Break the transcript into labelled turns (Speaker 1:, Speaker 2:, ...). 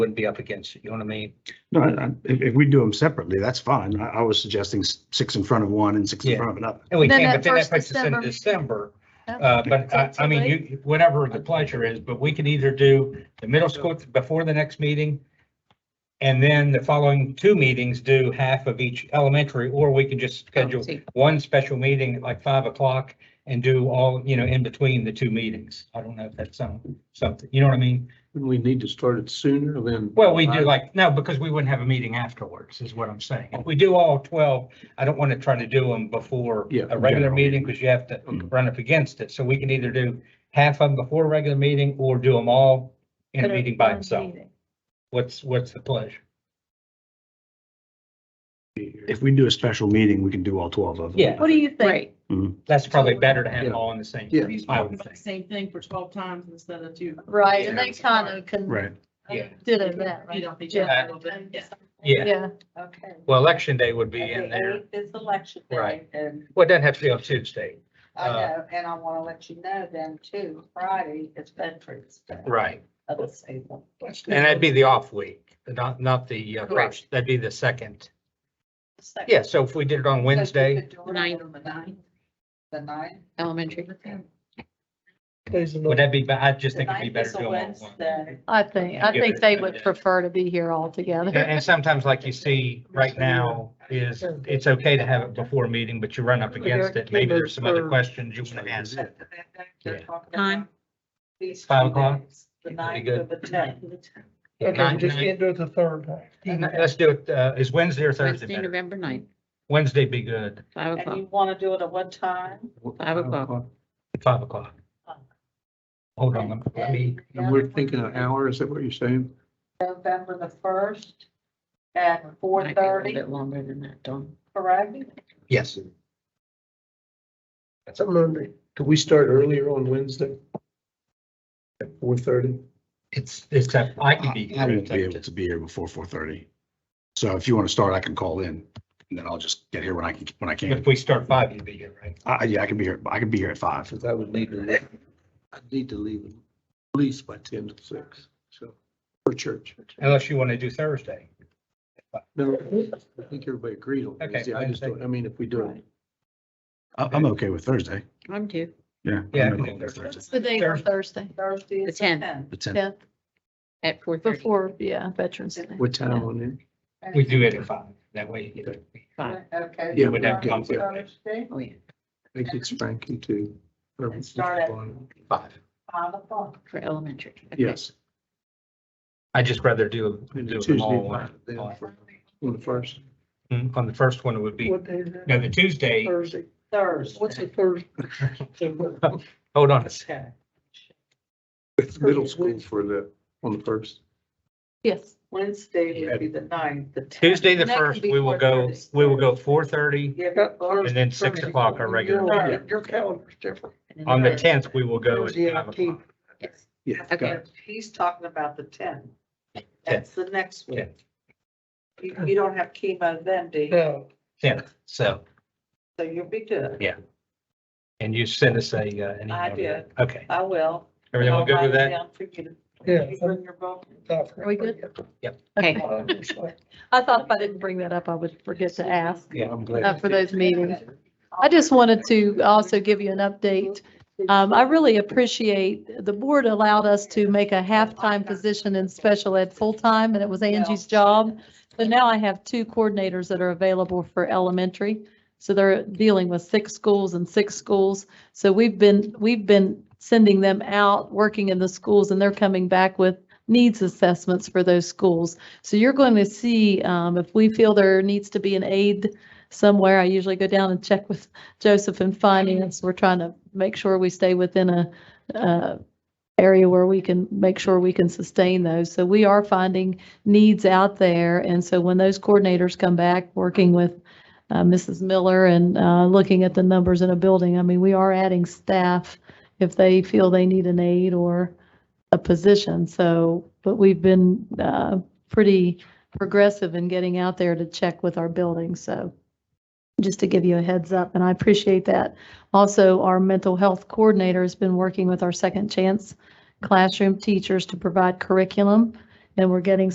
Speaker 1: wouldn't be up against it, you know what I mean?
Speaker 2: No, I- I- if, if we do them separately, that's fine. I, I was suggesting s- six in front of one and six in
Speaker 1: Yeah.
Speaker 2: front of another.
Speaker 1: And we
Speaker 3: Then
Speaker 1: can't,
Speaker 3: that
Speaker 1: but then that
Speaker 3: first
Speaker 1: puts us in
Speaker 3: December-
Speaker 1: December.
Speaker 3: Oh.
Speaker 1: Uh, but I,
Speaker 3: So
Speaker 1: I mean,
Speaker 3: too
Speaker 1: you, whatever the pleasure is, but we can either do the middle school before the next meeting. And then the following two meetings do half of each elementary, or we can just schedule
Speaker 3: Oh, See.
Speaker 1: one special meeting at like five o'clock and do all, you know, in between the two meetings. I don't know if that's some, something, you know what I mean?
Speaker 4: Wouldn't we need to start it sooner than?
Speaker 1: Well, we do like, no, because we wouldn't have a meeting afterwards, is what I'm saying. If we do all twelve, I don't want to try to do them before
Speaker 4: Yeah, Mm-hmm.
Speaker 1: a regular
Speaker 2: general.
Speaker 1: meeting because you have to
Speaker 4: Okay.
Speaker 1: run up against it. So we can either do half of them before a regular meeting or do them all in a
Speaker 3: Put it
Speaker 1: meeting by
Speaker 3: on
Speaker 1: itself.
Speaker 3: meeting.
Speaker 1: What's, what's the pleasure?
Speaker 2: If we do a special meeting, we can do all twelve of them.
Speaker 1: Yeah.
Speaker 3: What do you think?
Speaker 5: Right.
Speaker 1: That's probably better to have them
Speaker 4: Yeah.
Speaker 1: all in the same.
Speaker 4: Yeah.
Speaker 1: meeting, I
Speaker 6: talking
Speaker 1: would
Speaker 6: about the
Speaker 1: think.
Speaker 6: same thing for twelve times instead of two.
Speaker 3: Right, and they kind of
Speaker 2: Right.
Speaker 3: can,
Speaker 1: Yeah.
Speaker 3: did it that,
Speaker 6: You
Speaker 3: right?
Speaker 6: don't think.
Speaker 1: Yeah. Yeah,
Speaker 3: Yeah,
Speaker 5: Okay.
Speaker 1: well, election day would be in
Speaker 5: And the
Speaker 1: there.
Speaker 5: eighth is election day.
Speaker 1: Right.
Speaker 5: And
Speaker 1: Well, it doesn't have to be on Tuesday.
Speaker 5: I
Speaker 1: Uh,
Speaker 5: know, and I want to let you know then too, Friday is Veterans Day.
Speaker 1: Right.
Speaker 5: Of the same one.
Speaker 1: And that'd be the off week, not, not the uh,
Speaker 5: Correct.
Speaker 1: first, that'd be the second.
Speaker 5: The second.
Speaker 1: Yeah, so if we did it on
Speaker 5: So you
Speaker 1: Wednesday.
Speaker 5: could do it
Speaker 6: Ninth.
Speaker 5: on The ninth. The ninth.
Speaker 6: Elementary.
Speaker 1: Would that be, ba- I just
Speaker 5: The
Speaker 1: think it'd be
Speaker 5: ninth
Speaker 1: better
Speaker 5: is
Speaker 1: to
Speaker 5: a
Speaker 1: do them all at once.
Speaker 5: Wednesday.
Speaker 3: I think, I think they would prefer to be here all
Speaker 1: And
Speaker 3: together.
Speaker 1: and sometimes like you see right now is, it's okay to have it before a meeting, but you run up against it. Maybe there's some other questions you want to ask.
Speaker 5: They're
Speaker 1: Yeah.
Speaker 5: talking
Speaker 6: Time?
Speaker 5: about these
Speaker 1: Five
Speaker 5: two
Speaker 1: o'clock?
Speaker 5: days, The
Speaker 1: Pretty
Speaker 5: ninth
Speaker 1: good.
Speaker 5: of the tenth.
Speaker 1: Nine- nine-
Speaker 7: do it the third
Speaker 1: nine- Let's do it, uh, is Wednesday or Thursday
Speaker 6: Wednesday,
Speaker 1: better?
Speaker 6: November ninth,
Speaker 1: Wednesday be good,
Speaker 6: five
Speaker 5: And
Speaker 6: o'clock.
Speaker 5: you want to do it at what time?
Speaker 6: Five o'clock.
Speaker 1: five o'clock. Hold on, let me- let me,
Speaker 4: And we're thinking an hour, is that what you're saying?
Speaker 5: November the first at
Speaker 6: Might
Speaker 5: four
Speaker 6: be a little
Speaker 5: thirty,
Speaker 6: Bit longer than that, Dawn.
Speaker 5: correct?
Speaker 1: yes.
Speaker 8: I'm wondering, could we start earlier on Wednesday? At four thirty?
Speaker 1: It's, it's, up- I can be.
Speaker 2: I I won't be able to be here before four thirty. So if you want to start, I can call in and then I'll just get here when I can, when I can.
Speaker 1: If we start five, you'd be here, right?
Speaker 2: I, yeah, I can be here. I can be here at five.
Speaker 4: Because I would need to, leave. I'd need to leave at least by ten to six, so, for church.
Speaker 1: Unless you want to do Thursday.
Speaker 4: No, I think everybody agreed on
Speaker 1: Okay,
Speaker 4: this. Yeah, I just don't, I mean, if we do it,
Speaker 2: I, I'm okay with Thursday.
Speaker 6: I'm too.
Speaker 2: Yeah.
Speaker 1: Yeah, I
Speaker 2: I'm
Speaker 1: can
Speaker 2: okay
Speaker 1: do
Speaker 2: with
Speaker 1: Thursday.
Speaker 2: Thursday.
Speaker 3: It's the day for Thursday,
Speaker 5: Thursday
Speaker 6: The
Speaker 5: is the
Speaker 6: 10th.
Speaker 5: tenth.
Speaker 2: The tenth.
Speaker 3: yeah,
Speaker 6: At four thirty,
Speaker 3: before, yeah, Veterans Day.
Speaker 4: what time on it?
Speaker 1: We do it at five, that way. you get-
Speaker 6: five.
Speaker 5: Okay.
Speaker 4: Yeah,
Speaker 5: so
Speaker 4: we'd have
Speaker 5: on
Speaker 1: conflict.
Speaker 5: Thursday,
Speaker 6: Oh, yeah,
Speaker 4: I think it's Frankie too. Or-
Speaker 5: And start at-
Speaker 1: Five.
Speaker 5: Five o'clock.
Speaker 6: for elementary. Okay.
Speaker 4: Yes.
Speaker 1: I'd just rather do,
Speaker 4: and
Speaker 1: do
Speaker 4: Tuesday
Speaker 1: them all on-
Speaker 4: night, then for- On the first.
Speaker 1: Mm, on the first one, it would be,
Speaker 7: What day is
Speaker 1: no,
Speaker 7: that?
Speaker 1: the Tuesday,
Speaker 7: Thursday.
Speaker 5: Thursday.
Speaker 7: What's the Thursday?
Speaker 1: hold on a second.
Speaker 4: It's middle school for the, on the first.
Speaker 3: Yes,
Speaker 5: Wednesday would be the ninth, the tenth.
Speaker 1: Tuesday, the
Speaker 5: And that can
Speaker 1: first,
Speaker 5: be
Speaker 1: we will go,
Speaker 5: 4:30.
Speaker 1: we will go four thirty,
Speaker 5: Give it first.
Speaker 1: and then six o'clock our regular.
Speaker 7: Your- Your calendar's different.
Speaker 6: And then
Speaker 1: On the
Speaker 6: Thursday.
Speaker 1: tenth, we will go at
Speaker 7: Thursday,
Speaker 1: five
Speaker 7: eighteenth.
Speaker 1: o'clock.
Speaker 6: Yes.
Speaker 4: Yeah.
Speaker 6: Okay.
Speaker 4: got it.
Speaker 5: He's talking about the tenth. That's the next one.
Speaker 1: Tenth.
Speaker 5: You, you don't have chemo then, do you?
Speaker 7: No,
Speaker 1: Tenth, so,
Speaker 5: So you'll be good.
Speaker 1: and you send us a, uh, an email.
Speaker 5: I
Speaker 1: to
Speaker 5: did.
Speaker 1: that. Okay,
Speaker 5: I will.
Speaker 1: everyone good with
Speaker 5: I'll write it
Speaker 1: that?
Speaker 5: down for you to-
Speaker 7: yeah.
Speaker 5: you bring your book.
Speaker 7: that's-
Speaker 3: Are we good?
Speaker 6: Okay,
Speaker 3: I thought if I didn't bring that up, I would forget to ask
Speaker 1: Yeah.
Speaker 4: I'm glad.
Speaker 3: uh, for those meetings. I just wanted to also give you an update. Um, I really appreciate, the board allowed us to make a half-time position in special ed full-time, and it was Angie's job. But now I have two coordinators that are available for elementary. So they're dealing with six schools and six schools. So we've been, we've been sending them out, working in the schools, and they're coming back with needs assessments for those schools. So you're going to see, um, if we feel there needs to be an aid somewhere, I usually go down and check with Joseph and finance, we're trying to make sure we stay within a, uh, area where we can make sure we can sustain those. So we are finding needs out there. And so when those coordinators come back, working with, uh, Mrs. Miller and, uh, looking at the numbers in a building, I mean, we are adding staff if they feel they need an aide or a position. So, but we've been, uh, pretty progressive in getting out there to check with our buildings. So just to give you a heads up, and I appreciate that. Also, our mental health coordinator has been working with our Second Chance classroom teachers to provide curriculum, and we're getting